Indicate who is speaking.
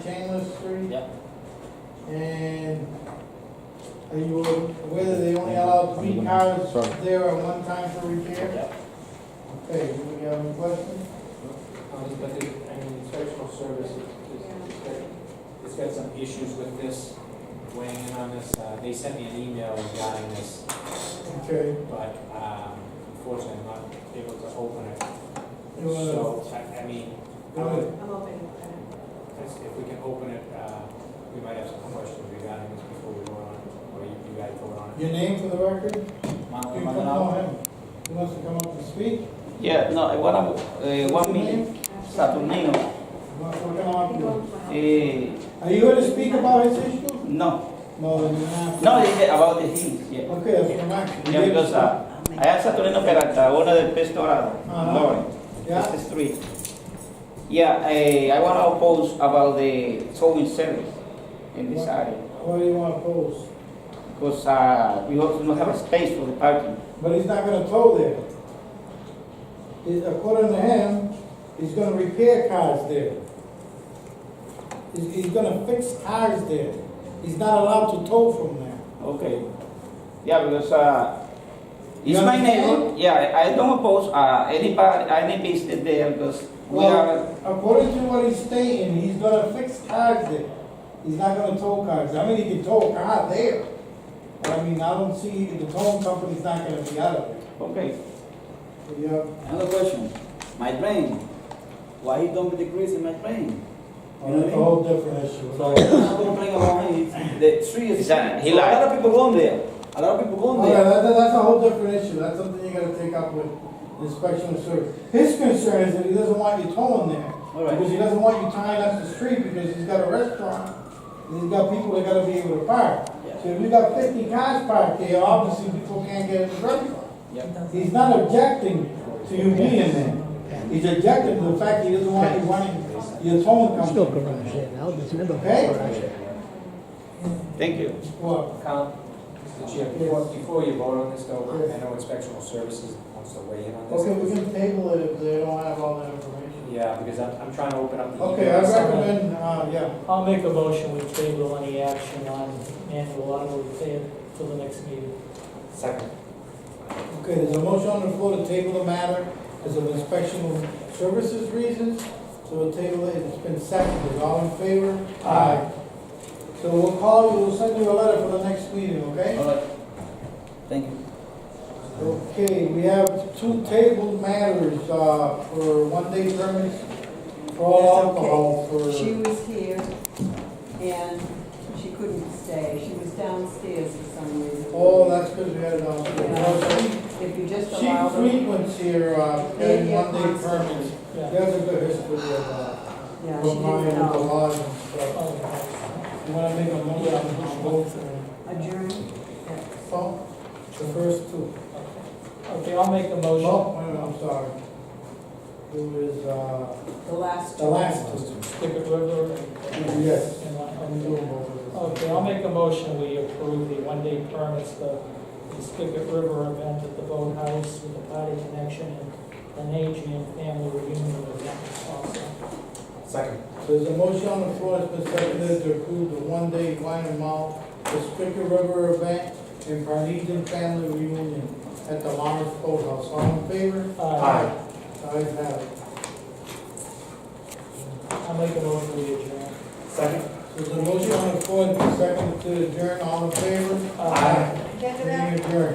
Speaker 1: Stainless Street?
Speaker 2: Yep.
Speaker 1: And are you aware that they only allow three cars
Speaker 3: Sorry.
Speaker 1: there at one time for repair?
Speaker 2: Yep.
Speaker 1: Okay, do we have any questions?
Speaker 4: Um, But the, I mean, inspectional service, is- is- it's got- it's got some issues with this, weighing in on this. Uh, They sent me an email regarding this,
Speaker 1: Okay,
Speaker 4: but um, unfortunately, I'm not able to open it.
Speaker 1: you wanna-
Speaker 4: So, I I mean, I
Speaker 1: Go ahead.
Speaker 4: would-
Speaker 5: I'm open to
Speaker 4: if if we can open it, uh, we might have some questions regarding this before we vote on it, or you you guys vote on it.
Speaker 1: your name for the record?
Speaker 2: Mark,
Speaker 1: You
Speaker 2: am I
Speaker 1: come
Speaker 2: allowed?
Speaker 1: on in. You want to come up and speak?
Speaker 2: Yeah, no, what I'm, eh,
Speaker 1: What's
Speaker 2: one
Speaker 1: your
Speaker 2: minute,
Speaker 1: name?
Speaker 5: that.
Speaker 2: Saturnino,
Speaker 1: You want to come on up
Speaker 2: eh,
Speaker 1: here? Are you here to speak about his issue?
Speaker 2: no,
Speaker 1: No, then you're not.
Speaker 2: no, it's about the things, yeah.
Speaker 1: Okay, that's what I'm.
Speaker 2: Yeah, because, uh, I asked Saturnino Peralta, owner del Pez Dorado,
Speaker 1: Uh-huh.
Speaker 2: Lawrence.
Speaker 1: Yeah,
Speaker 2: It's three. Yeah, I, I want to oppose about the towing service in this area
Speaker 1: what do you want to pose?
Speaker 2: because uh, we also don't have a space for the parking.
Speaker 1: But he's not gonna tow there. He- According to him, he's gonna repair cars there. He's, he's gonna fix cars there. He's not allowed to tow from there.
Speaker 2: Okay. Yeah, because uh,
Speaker 1: You
Speaker 2: it's my
Speaker 1: understand?
Speaker 2: neighbor. Yeah, I I don't oppose uh, anybody, any business there because we
Speaker 1: Well, according to what he's stating, he's gonna fix cars there. He's not gonna tow cars. I mean, he can tow a car there. But I mean, I don't see, the towing company's not gonna be out of it.
Speaker 2: are okay.
Speaker 1: Yeah.
Speaker 6: Another question, my brain, why he don't decrease in my brain? You know what I
Speaker 1: That's a
Speaker 6: mean?
Speaker 1: whole different issue.
Speaker 6: So I'm complaining about him, the tree is, so
Speaker 2: Exactly.
Speaker 6: a
Speaker 2: He
Speaker 6: lot
Speaker 2: lied.
Speaker 6: of people gone there, a lot of people gone
Speaker 1: Okay,
Speaker 6: there.
Speaker 1: that, that- that's a whole different issue, that's something you gotta take up with inspection of service. His concern is that he doesn't want you towing there,
Speaker 6: Alright.
Speaker 1: because he doesn't want you tying up the street, because he's got a restaurant, and he's got people that gotta be able to park. So if you got fifty cars parked there, obviously people can't get in the restaurant. He's not objecting to you being there, he's objecting to the fact he doesn't want you running your towing company.
Speaker 7: Still garage there now, there's never
Speaker 1: Okay.
Speaker 7: garage there.
Speaker 2: Thank you.
Speaker 1: Well,
Speaker 4: Count, Mr. Chair, before before you vote on this though, I know inspectional services wants to weigh in on this.
Speaker 1: okay, we can table it if they don't have all that information.
Speaker 4: Yeah, because I'm, I'm trying to open up the.
Speaker 1: Okay, I recommend, uh, yeah.
Speaker 8: I'll make a motion, we table any action on annual auto repair till the next meeting.
Speaker 4: Second.
Speaker 1: Okay, there's a motion on the floor to table the matter as of inspection services reasons, so we'll table it, it's been seconded, all in favor? Aye. So we'll call you, we'll send you a letter for the next meeting, okay?
Speaker 6: Alright, thank you.
Speaker 1: Okay, we have two tabled matters, uh, for one-day permits for all alcohol for,
Speaker 5: She was here and she couldn't stay. She was downstairs for some reason.
Speaker 1: oh, that's because we had,
Speaker 5: Yeah.
Speaker 1: uh,
Speaker 5: If you just
Speaker 1: she
Speaker 5: allow her.
Speaker 1: frequents here, uh, getting one-day permits. There's a good history of, uh,
Speaker 5: Yeah, she
Speaker 1: Well, Brian,
Speaker 5: didn't
Speaker 1: the
Speaker 5: know.
Speaker 1: laws and stuff. You wanna make a motion on those votes and
Speaker 5: Adjourn.
Speaker 1: so, Oh, the first two?
Speaker 8: Okay, I'll make a motion.
Speaker 1: No, wait, I'm sorry. It was, uh,
Speaker 5: The last.
Speaker 1: the last two.
Speaker 8: Stick it with her and-
Speaker 1: Yes.
Speaker 8: and I-
Speaker 1: I'm doing both of
Speaker 8: Okay, I'll make a motion, we approve the one-day permits, the the Spigot River event at the boathouse with the party connection and an Adrian family reunion event also.
Speaker 4: Second.
Speaker 1: them. There's a motion on the floor that's been seconded to approve the one-day wine and malt, the Spicker River event and Parnesian family reunion at the Lawrence Boathouse. All in favor?
Speaker 8: Aye.
Speaker 1: The ayes have it.
Speaker 8: I'll make a motion, we adjourn.
Speaker 4: Second.
Speaker 1: There's a motion on the floor that's been seconded to adjourn. All in favor?
Speaker 8: Aye.
Speaker 1: Meeting adjourned.